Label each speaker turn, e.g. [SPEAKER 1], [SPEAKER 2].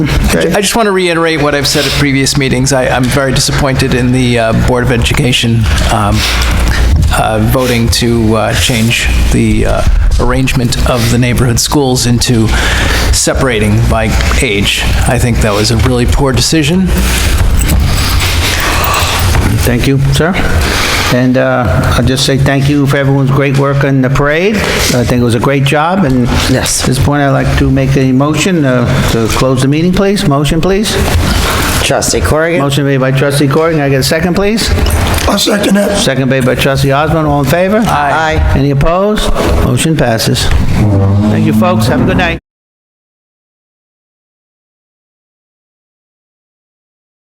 [SPEAKER 1] Okay.
[SPEAKER 2] I just want to reiterate what I've said at previous meetings. I, I'm very disappointed in the uh, Board of Education um, uh, voting to uh, change the uh, arrangement of the neighborhood schools into separating by age. I think that was a really poor decision.
[SPEAKER 1] Thank you, sir. And uh, I'll just say thank you for everyone's great work on the parade. I think it was a great job, and
[SPEAKER 3] Yes.
[SPEAKER 1] at this point, I'd like to make a motion uh, to close the meeting, please. Motion, please.
[SPEAKER 3] Trustee Corrigan?
[SPEAKER 1] Motion made by trustee Corrigan. Can I get a second, please?
[SPEAKER 4] I'll second that.
[SPEAKER 1] Second made by trustee Osborne. All in favor?
[SPEAKER 3] Aye.
[SPEAKER 1] Any opposed? Motion passes. Thank you, folks. Have a good night.